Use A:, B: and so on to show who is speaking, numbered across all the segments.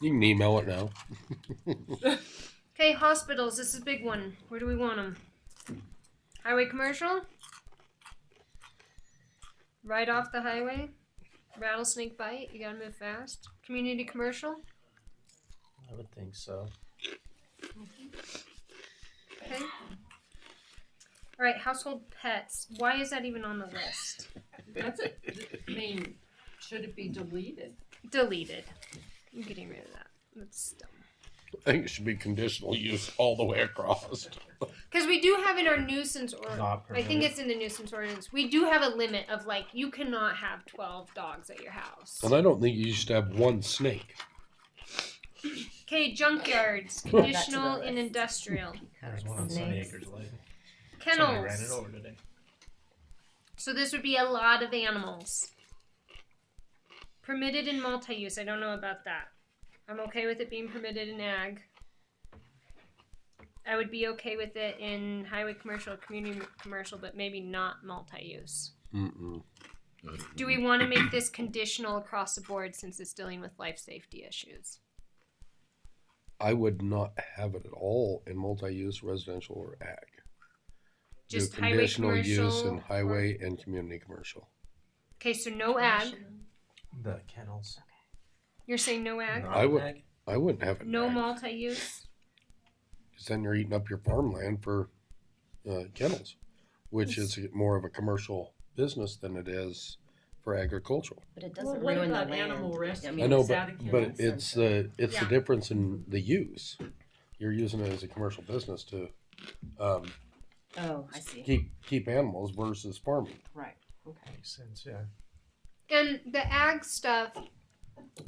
A: You can email it now.
B: Okay, hospitals. This is a big one. Where do we want them? Highway commercial? Right off the highway? Rattlesnake bite? You gotta move fast. Community commercial?
C: I would think so.
B: Okay. All right, household pets. Why is that even on the list?
D: That's a, I mean, should it be deleted?
B: Deleted. I'm getting rid of that. That's dumb.
A: I think it should be conditional use all the way across.
B: Because we do have in our nuisance or
C: Not
B: I think
C: permitted.
B: it's in the nuisance ordinance. We do have a limit of like you cannot have twelve dogs at your house.
A: And I don't think you should have one snake.
B: Okay, junkyards,
E: the
B: conditional and
E: list.
B: industrial,
C: There's one on Sunny
E: Snakes.
C: Acres Lake. Somebody ran it
B: kennels.
C: over today.
B: So this would be a lot of animals. Permitted in multi-use. I don't know about that. I'm okay with it being permitted in ag. I would be okay with it in highway commercial, community commercial, but maybe not multi-use.
A: Mm-mm.
B: Do we want to make this conditional across the board since it's dealing with life safety issues?
A: I would not have it at all in multi-use residential or ag. Do
B: Just highway
A: conditional use
B: commercial
A: in
B: or-
A: highway and community commercial.
B: Okay, so no ag.
C: The kennels.
B: You're saying no ag?
A: I would- I wouldn't have it. in
B: No
A: ag,
B: multi-use.
A: 'cause then you're eating up your farmland for uh, kennels, which is more of a commercial business than it is for agricultural.
E: But it
D: Well,
E: doesn't
D: what
E: ruin the
D: about
E: land.
D: animal rescue?
A: I
E: mean,
A: know,
D: is that a
A: but but
D: kennel?
A: it's the it's the
B: Yeah.
A: difference in the use. You're using it as a commercial business to um,
E: Oh, I see.
A: keep keep animals versus farming.
E: Right. Okay.
C: Makes sense, yeah.
B: And the ag stuff,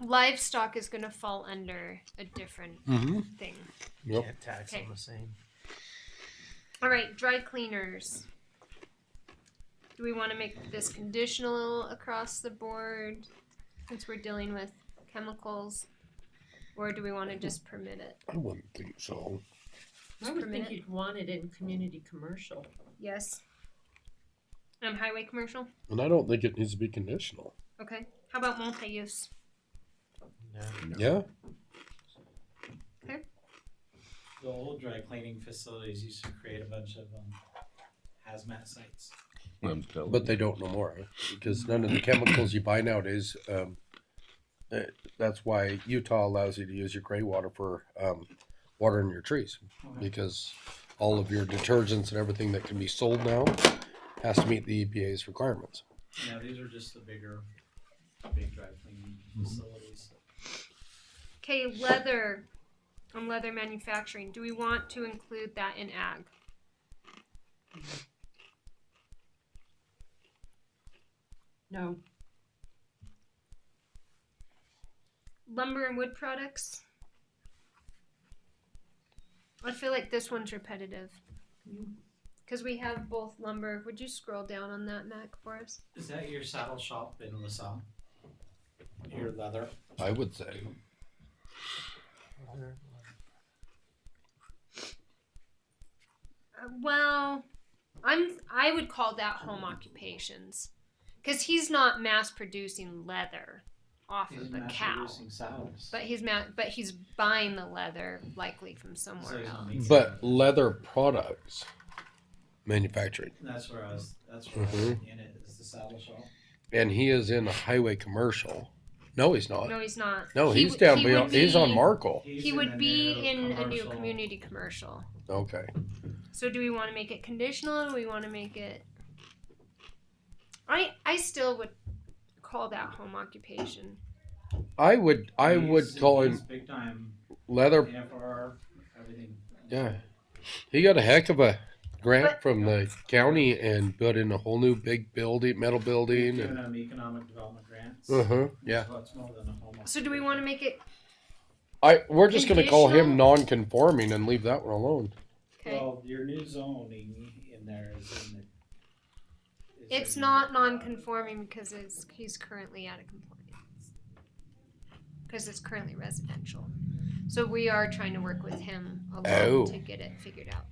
B: livestock is going to fall under a different
A: Mm-hmm.
B: thing.
A: Yep.
C: Can't tax
B: Okay.
C: them the same.
B: All right, dry cleaners. Do we want to make this conditional across the board since we're dealing with chemicals? Or do we want to just permit it?
A: I wouldn't think so.
D: I would think
B: permitted.
D: you'd want it in community commercial.
B: Yes. Um, highway commercial?
A: And I don't think it needs to be conditional.
B: Okay. How about multi use?
C: No.
A: Yeah.
F: The old dry cleaning facilities used to create a bunch of um, hazmat sites.
G: I'm telling
A: But they don't no more because none of the chemicals you buy nowadays. Um, eh, that's why Utah allows you to use your gray water for um, watering your trees because all of your detergents and everything that can be sold now has to meet the EPA's requirements.
F: You know, these are just the bigger, big dry cleaning
A: Mm-hmm.
F: facilities.
B: Okay, leather and leather manufacturing. Do we want to include that in ag?
D: No,
B: lumber and wood products. I feel like this one's repetitive. Because we have both lumber. Would you scroll down on that, Mac, for us?
F: Is that your saddle shop in LaSalle? Your leather?
A: I would say.
C: Leather,
B: Uh, well, I'm. I would call that home occupations, because he's not mass producing leather off
F: He's
B: of the
F: mass
B: cow,
F: producing saddles.
B: but he's ma- But he's buying the leather likely from
F: So
B: somewhere
F: he's not
B: else.
F: making-
A: But leather products manufacturing,
F: That's where I was, that's where
A: Mm-hmm.
F: I was in it, is the saddle shop.
A: and he is in a highway commercial. No, he's not.
B: No, he's not.
A: No,
B: He
A: he's
B: w-
A: down
B: he
A: beyond.
B: would
A: He's on
B: be-
A: Markle.
F: He's
B: He
F: a
B: would be
F: new
B: in a new
F: commercial-
B: community commercial.
A: Okay.
B: So do we want to make it conditional? Or do we want to make it? I I still would call that home occupation.
A: I would. I
F: He's-
A: would call
F: he's
A: him
F: Big time,
A: leather
F: FR, everything.
A: Yeah. He got a heck of a grant
B: But-
A: from the county and built in a whole new big building, metal building.
F: Giving
A: And,
F: them economic development grants.
A: uh-huh. Yeah.
F: So it's more than a home
B: So do we want to make it
A: I we're just going to call him non-conforming and leave that one alone.
B: okay?
F: Well, your new zoning in there is in the. is
B: it's
F: in
B: not
F: the-
B: non-conforming because it's he's currently out of compliance because it's currently residential. So we are trying to work with him a lot
A: Oh.
B: to get it figured out.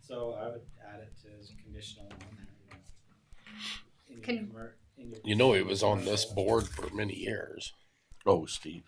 F: So I would add it to as conditional on there. you know. In your
B: Con-
F: commer- in your-
A: You know, he was on this board for many years.
G: Oh, Steve.